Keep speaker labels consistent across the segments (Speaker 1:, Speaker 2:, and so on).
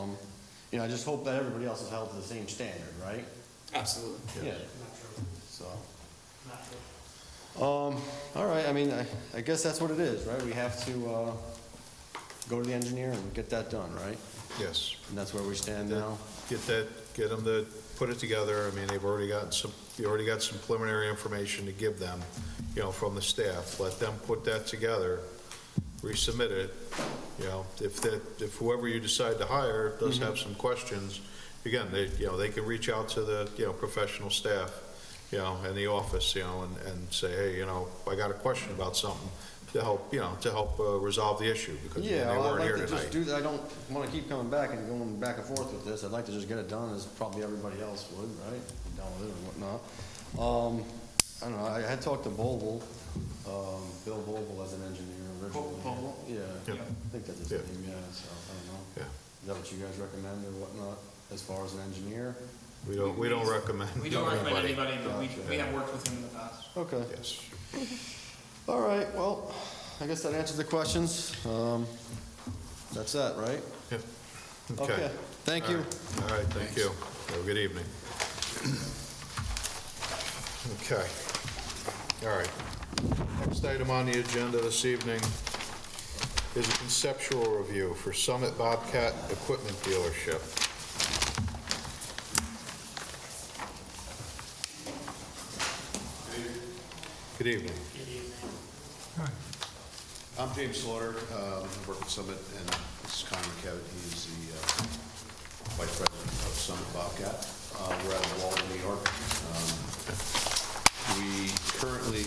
Speaker 1: Um, you know, I just hope that everybody else is held to the same standard, right?
Speaker 2: Absolutely.
Speaker 1: Yeah. So. Um, all right, I mean, I, I guess that's what it is, right? We have to, uh, go to the engineer and get that done, right?
Speaker 3: Yes.
Speaker 1: And that's where we stand now?
Speaker 3: Get that, get them to put it together. I mean, they've already gotten some, you already got some preliminary information to give them, you know, from the staff. Let them put that together, resubmit it, you know, if that, if whoever you decide to hire does
Speaker 1: Mm-hmm.
Speaker 3: have some questions, again, they, you know, they can reach out to the, you know, professional staff, you know, in the office, you know, and, and say, hey, you know, I got a question about something to help, you know, to help uh, resolve the issue because they
Speaker 1: Yeah, well, I'd
Speaker 3: weren't here
Speaker 1: like to
Speaker 3: tonight.
Speaker 1: just do that. I don't wanna keep coming back and going back and forth with this. I'd like to just get it done, as probably everybody else would, right? Down with it and whatnot. Um, I don't know, I had talked to Boble, um, Bill Boble as an engineer originally.
Speaker 2: Boble?
Speaker 1: Yeah,
Speaker 3: Yeah.
Speaker 1: I think that's his
Speaker 3: Yeah.
Speaker 1: name, yeah, so, I don't know.
Speaker 3: Yeah.
Speaker 1: Is that what you guys recommend or whatnot, as far as an engineer?
Speaker 3: We don't, we don't recommend.
Speaker 2: We don't recommend
Speaker 3: anybody.
Speaker 2: anybody, but we, we
Speaker 3: Yeah.
Speaker 2: have worked with him in the past.
Speaker 1: Okay,
Speaker 3: Yes.
Speaker 1: all right, well, I guess that answers the questions. Um, that's that, right?
Speaker 3: Yep.
Speaker 1: Okay, thank you.
Speaker 3: All right, thank you. Have a good evening. Okay. All right. Next item on the agenda this evening is a conceptual review for Summit Bobcat Equipment Dealership. Good evening.
Speaker 4: I'm James Slaughter, um, I work at Summit, and this is Connor Kevitt, he's the uh, Vice President of Summit Bobcat. Uh, We're out of Walden, New York. Um, We currently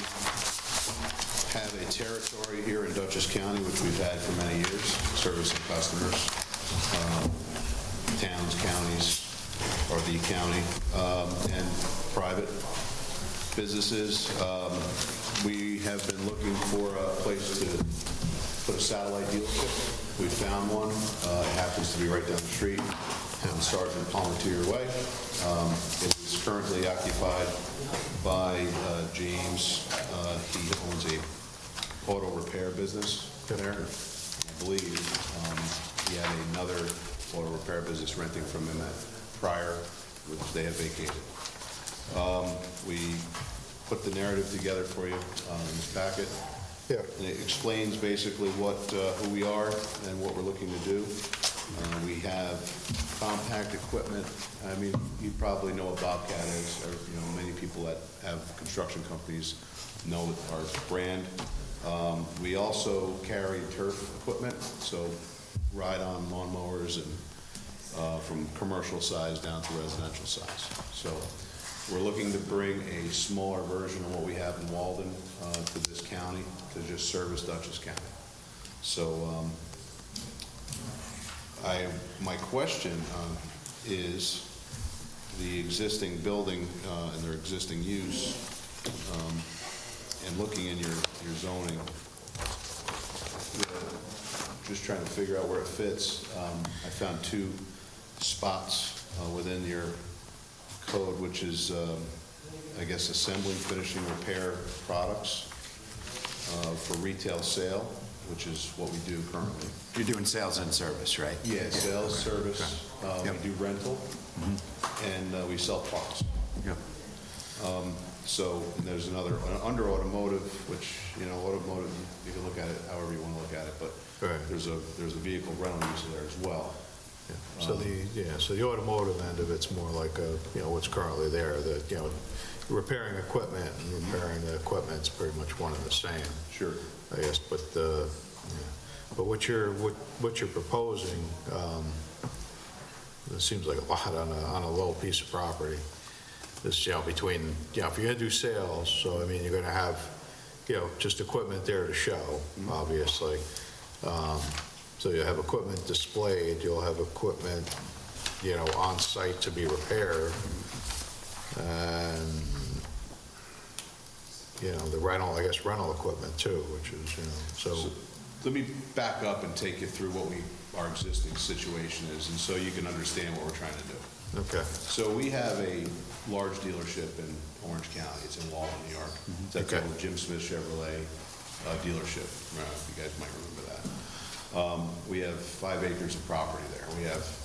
Speaker 4: have a territory here in Dutchess County, which we've had for many years, servicing customers, um, towns, counties, or the county, um, and private businesses. Um, We have been looking for a place to put a satellite dealership. We found one. Uh, It happens to be right down the street, down Sergeant Palmetier Way. Um, It is currently occupied by uh, James. Uh, He owns a auto repair business there. I believe um, he had another auto repair business renting from him at Prior, which they have vacated Um, we put the narrative together for you um, in this packet.
Speaker 3: Yeah.
Speaker 4: And it explains basically what, uh, who we are and what we're looking to do. Uh, We have compact equipment. I mean, you probably know what Bobcat is, or, you know, many people that have construction companies know our brand. Um, We also carry turf equipment, so ride-on lawnmowers and uh, from commercial size down to residential size. So we're looking to bring a smaller version of what we have in Walden uh, to this county, to just service Dutchess County. So um, I, my question um, is, the existing building uh, and their existing use, um, and looking in your your zoning, just trying to figure out where it fits. Um, I found two spots uh, within your code, which is, um, I guess, assembling, finishing, repair products uh, for retail sale, which is what we do currently.
Speaker 5: You're doing sales and service, right?
Speaker 4: Yeah, sales, service, uh,
Speaker 5: Yep.
Speaker 4: we do rental, and uh, we sell parts.
Speaker 5: Yep.
Speaker 4: So, and there's another, uh, under automotive, which, you know, automotive, you can look at it however you want to look at it, but
Speaker 3: Right.
Speaker 4: there's a, there's a vehicle rental use there as well.
Speaker 3: Yeah. So the, yeah, so the automotive end of it's more like a, you know, what's currently there, the, you know, repairing equipment and repairing the equipment's pretty much one and the same,
Speaker 4: Sure.
Speaker 3: I guess, but, uh, yeah. but what you're, what what you're proposing, um, it seems like a lot on a, on a little piece of property. This, you know, between, you know, if you're gonna do sales, so I mean, you're gonna have, you know, just equipment there to show, obviously. Um, So you'll have equipment displayed, you'll have equipment, you know, on site to be repaired. And, you know, the rental, I guess rental equipment too, which is, you know, so,
Speaker 4: So Let me back up and take you through what we, our existing situation is, and so you can understand what we're trying to do.
Speaker 3: okay.
Speaker 4: So we have a large dealership in Orange County, it's in Walden, New York. It's at the
Speaker 3: Okay.
Speaker 4: old Jim Smith Chevrolet uh, dealership, Uh, you guys might remember that. Um, We have five acres of property there. We have